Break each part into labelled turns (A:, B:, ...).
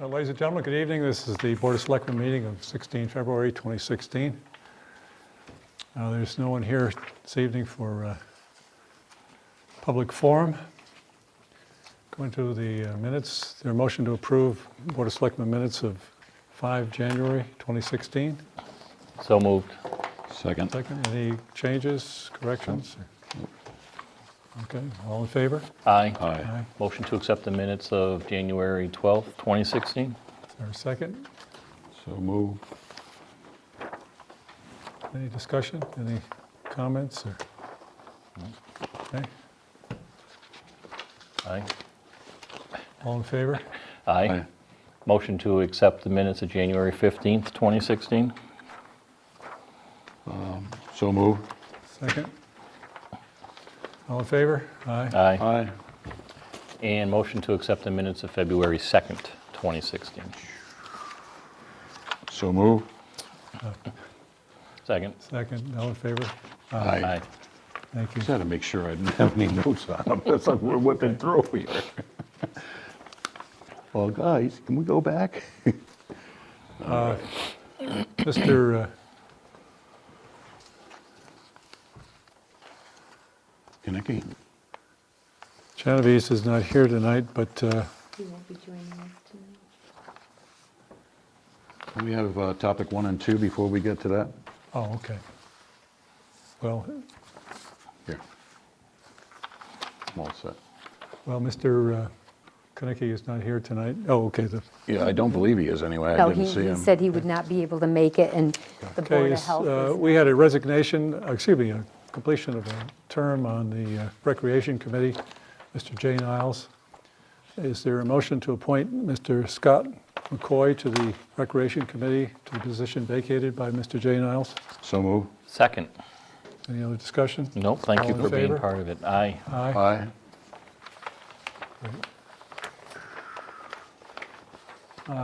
A: Uh, Ladies and gentlemen, good evening. This is the Board of Selectmen meeting of 16 February 2016. Uh, There's no one here this evening for uh, public forum. Going to the uh, minutes, there a motion to approve Board of Selectmen minutes of 5 January 2016.
B: So moved.
C: Second.
A: Second, any changes, corrections? Okay, all in favor?
B: Aye.
C: Aye.
B: Motion to accept the minutes of January 12th,
A: Is
B: 2016.
A: there a second?
C: So moved.
A: Any discussion, any comments, or? Okay,
B: Aye.
A: all in favor?
B: Aye. Motion to accept the minutes of January 15th, 2016.
C: So moved.
A: Second? All in favor? Aye.
B: Aye.
C: Aye.
B: And motion to accept the minutes of February 2nd, 2016.
C: So moved.
B: Second.
A: Second, all in favor?
C: Aye.
A: Thank you.
C: Just had to make sure I didn't have any notes on them. That's like we're whipping through here. Well, guys, can we go back?
A: Mr. uh,
C: Kinnicky?
A: Genovese is not here tonight, but uh,
D: He won't be joining us tonight.
C: Can We have uh, topic one and two before we get to that?
A: Oh, okay. Well,
C: Here. I'm all set.
A: well, Mr. uh, Konecki is not here tonight. Oh, okay, the
C: Yeah, I don't believe he is anyway. I
D: No,
C: didn't
D: he
C: see
D: he
C: him.
D: said he would not be able to make it, and the Board of
A: case,
D: Health
A: uh,
D: is...
A: we had a resignation, uh, excuse me, a completion of a term on the uh, Recreation Committee, Mr. Jay Niles. Is there a motion to appoint Mr. Scott McCoy to the Recreation Committee to the position vacated by Mr. Jay Niles?
C: So moved.
B: Second.
A: Any other discussion?
B: No, thank
A: All
B: you
A: in
B: for being
A: favor?
B: part of it. Aye.
A: Aye.
C: Aye.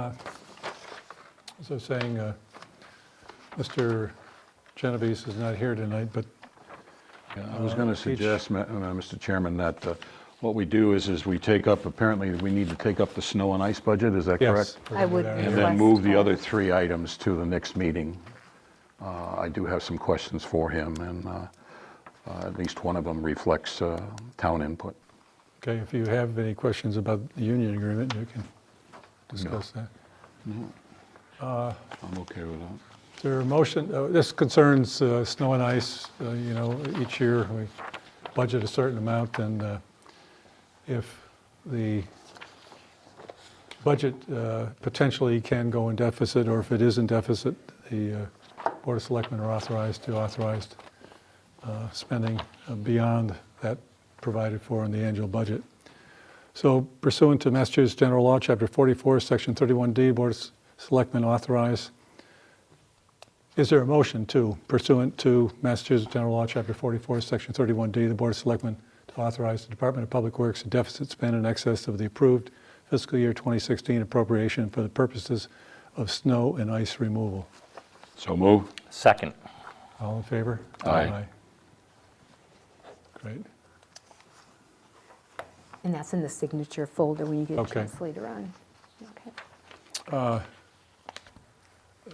A: As I was saying, uh, Mr. Genovese is not here tonight, but
C: I was going
A: Uh,
C: to
A: each-
C: suggest, Ma- uh, Mr. Chairman, that uh, what we do is, is we take up, apparently, we need to take up the snow and ice budget, is that
A: yes.
C: correct?
A: we're
D: I
A: gonna do
D: would
A: that.
D: be
C: And
D: Request
C: then move the
D: for-
C: other three items to the next meeting. Uh, I do have some questions for him, and uh, uh, at least one of them reflects uh, town input.
A: Okay, if you have any questions about the union agreement, you can discuss that.
C: I'm okay with that.
A: Is there a motion, uh, this concerns uh, snow and ice, uh, you know, each year we budget a certain amount, and uh, if the budget uh, potentially can go in deficit, or if it is in deficit, the uh, Board of Selectmen are authorized to authorize uh, spending beyond that provided for in the annual budget. So pursuant to Massachusetts General Law, Chapter 44, Section 31D, Board of Selectmen authorize is there a motion to pursuant to Massachusetts General Law, Chapter 44, Section 31D, the Board of Selectmen to authorize the Department of Public Works to deficit spend in excess of the approved fiscal year 2016 appropriation for the purposes of snow and ice removal?
C: So move.
B: Second.
A: All in favor?
C: Aye.
A: Great.
D: And that's in the signature folder when you get a
A: Okay.
D: chance later on. Okay.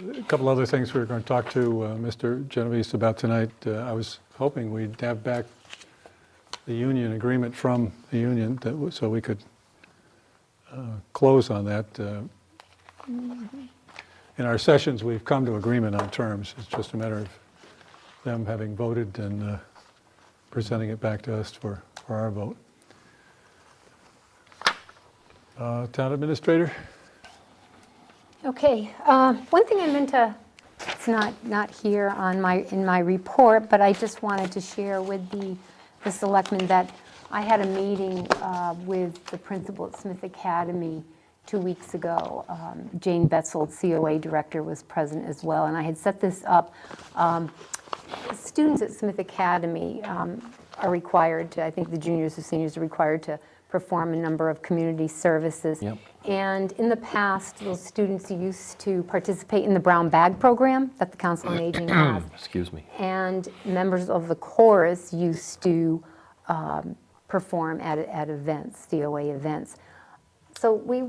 A: A couple other things we were going to talk to uh, Mr. Genovese about tonight. Uh, I was hoping we'd have back the union agreement from the union, that w- so we could uh, close on that. uh, In our sessions, we've come to agreement on terms. It's just a matter of them having voted and uh, presenting it back to us for, for our vote. Uh, Town Administrator?
D: Okay, uh, one thing I meant to, it's not, not here on my, in my report, but I just wanted to share with the, the selectmen that I had a meeting uh, with the principal at Smith Academy two weeks ago. Um, Jane Betzel, COA director, was present as well, and I had set this up students at Smith Academy um, are required to, I think the juniors and seniors are required to perform a number of community services.
B: Yep.
D: And in the past, those students used to participate in the Brown Bag Program that the Council on Aging has.
B: Excuse me.
D: And members of the chorus used to um, perform at, at events, DOA events. So we